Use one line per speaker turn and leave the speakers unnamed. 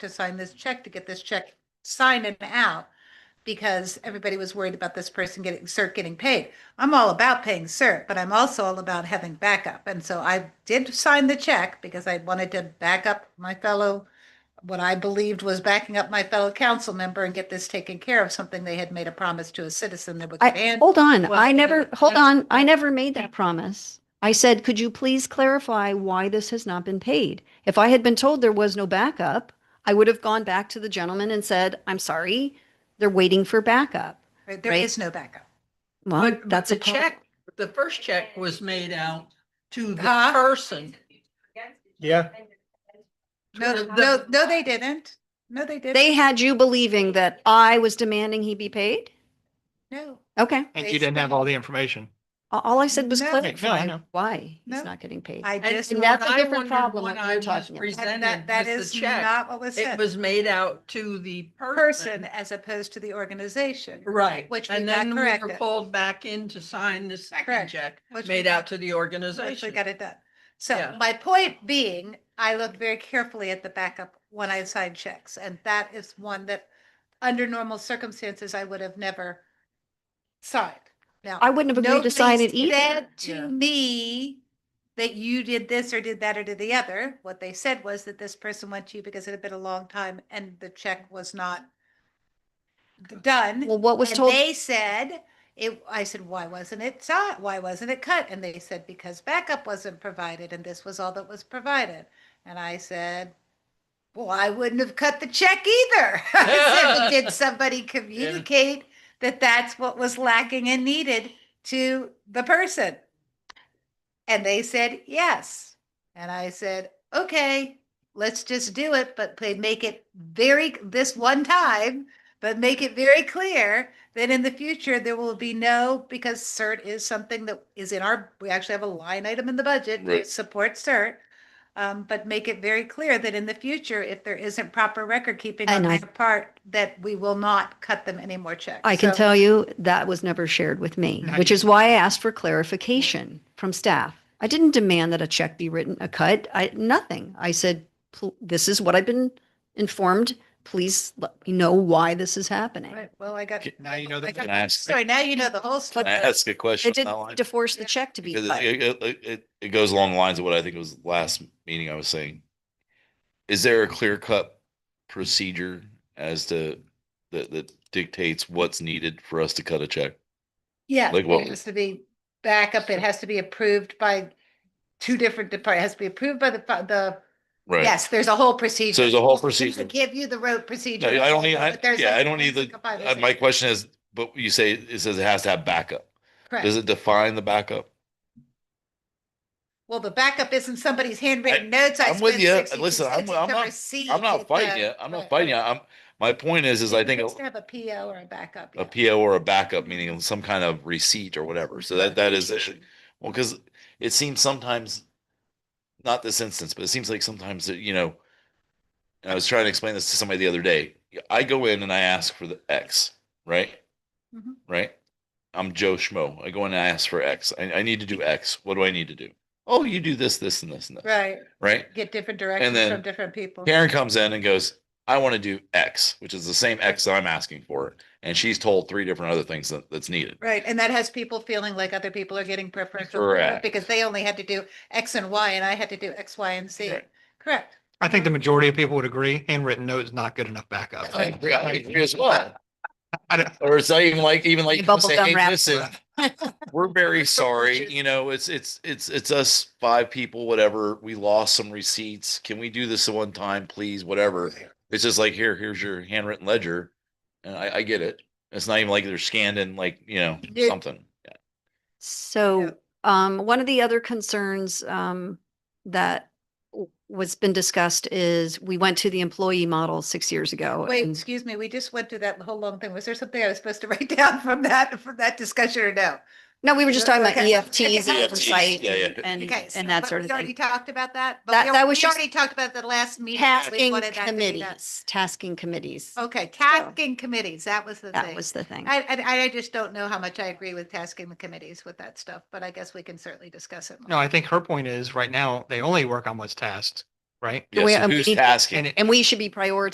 to sign this check to get this check signed and out because everybody was worried about this person getting cert getting paid. I'm all about paying cert, but I'm also all about having backup. And so I did sign the check because I wanted to back up my fellow, what I believed was backing up my fellow council member and get this taken care of, something they had made a promise to a citizen that would get
I,
in.
hold on,
Well,
I never, hold
that's-
on, I never made that promise. I said, could you please clarify why this has not been paid? If I had been told there was no backup, I would have gone back to the gentleman and said, I'm sorry, they're waiting for backup.
right? There
right.
is no backup.
Well,
But
that's
that's
a
the
pro-
check, the first check was made out to the
Huh?
person.
Yeah,
No,
The-
no, no, they didn't. No, they didn't.
They had you believing that I was demanding he be paid?
No.
Okay.
and you didn't have all the information.
A- All I said was
No.
No, I
clarify
know.
why
No.
he's not getting paid.
I
And
just,
And
what
that's a
I
different
wondered
problem
when
that you're
I was
talking about.
that,
presented
that- that
with
is
the check,
not what was
It
said.
was made out to the
Person
person.
as opposed to the organization.
Right.
Which we
And
got
then we were
corrected.
called back in to sign the second
Correct.
check,
Which we
made
got-
out to the
Which we
organization.
got it done. So
Yeah.
my point being, I looked very carefully at the backup when I signed checks, and that is one that, under normal circumstances, I would have never signed. Now,
I wouldn't have agreed to
nobody
sign it either.
said to
Yeah.
me that you did this or did that or did the other. What they said was that this person went to you because it had been a long time and the check was not done.
Well, what was
And
told,
They said, it, I said, why wasn't it signed? Why wasn't it cut? And they said, because backup wasn't provided and this was all that was provided. And I said, well, I wouldn't have cut the check either. I said, "Well, Did somebody communicate that that's what was lacking and needed to the person? And they said, yes. And I said, okay, let's just do it, but they make it very, this one time, but make it very clear that in the future, there will be no, because CERT is something that is in our, we actually have a line item in the budget to
Right.
support CERT. Um, but make it very clear that in the future, if there isn't proper record keeping on
And I-
their part, that we will not cut them any more checks.
I can
So-
tell you that was never shared with me,
No,
which
you-
is why I asked for clarification from staff. I didn't demand that a check be written, a cut, I, nothing. I said, "Pl- this is what I've been informed. Please let me know why this is happening.
Right, well, I got.
Okay, Now you know
I
that.
got-
Can I ask-
Sorry, now you know the whole
Can
story.
I ask a
It
question? on that line?
didn't to force the check to be
Because
cut.
it, it, it- it, it goes along the lines of what I think was last meeting I was saying. Is there a clear cut procedure as to, that, that dictates what's needed for us to cut a check?
Yeah,
Like what-
it has to be backup. It has to be approved by two different departments. It has to be approved by the, fi- the,
Right.
yes, there's a whole procedure.
So there's a whole
Just to
procedure.
Give you the road procedure.
No, I don't need, I,
But there's
yeah,
a-
I don't need
there's
the,
a five or
uh, my
six.
question is, but you say, it says it has to have backup.
Correct.
Does it define the backup?
Well, the backup isn't somebody's handwritten notes. I
I'm with
spent
you.
62
Listen, I'm-
cents
I'm
to
not-
receive
I'm
it,
not
uh,
fighting you. I'm not
right.
fighting you. I'm, my point is, is I think.
It's to have a PO or a backup.
a
yeah.
PO or a backup, meaning some kind of receipt or whatever. So that, that is, it. well, because it seems sometimes, not this instance, but it seems like sometimes that, you know, and I was trying to explain this to somebody the other day. I go in and I ask for the X, right?
Mhm.
Right? I'm Joe Schmo. I go in and I ask for X. I, I need to do X. What do I need to do? Oh, you do this, this, and this, and this,
Right.
right?
Get different directions
then
from different people.
Karen comes in and goes, I want to do X, which is the same X that I'm asking for. And she's told three different other things that, that's needed.
Right. And that has people feeling like other people are getting preferential treatment
Correct.
because they only had to do X and Y and I had to do X, Y, and Z.
Right.
Correct.
I think the majority of people would agree handwritten note is not good enough backup.
I agree, I agree as well.
I don't-
Or it's not even like, even
The
like,
bubble
say,
gum
hey,
wrap.
listen, we're very sorry, you know, it's, it's, it's, it's us five people, whatever, we lost some receipts. Can we do this one time, please, whatever? It's just like, here, here's your handwritten ledger. And I, I get it. It's not even like they're scanned in like, you know,
Yeah.
something.
Yeah.
So, um, one of the other concerns, um, that w- was been discussed is we went to the employee model six years ago.
Wait,
and-
excuse me. We just went through that whole long thing. Was there something I was supposed to write down from that, from that discussion or no?
No, we were just talking about
Okay.
EFTs and
EFTs,
oversight
E yeah, yeah.
and, and-
Okay. so-
and that
but
sort of
We already
thing.
talked about that. but
That-
we al-
that was
we
just
Already talked about that last meeting. We
Tasking
wanted that to be done.
committees, tasking committees.
Okay, tasking committees. That was the
That
thing.
was the thing.
I, I, I just don't know how much I agree with tasking the committees with that stuff, but I guess we can certainly discuss it. more.
No, I think her point is right now, they only work on what's tasked. right?
The way
Yes,
I'm-
who's
we-
tasking?
And it-
And we should be prioritizing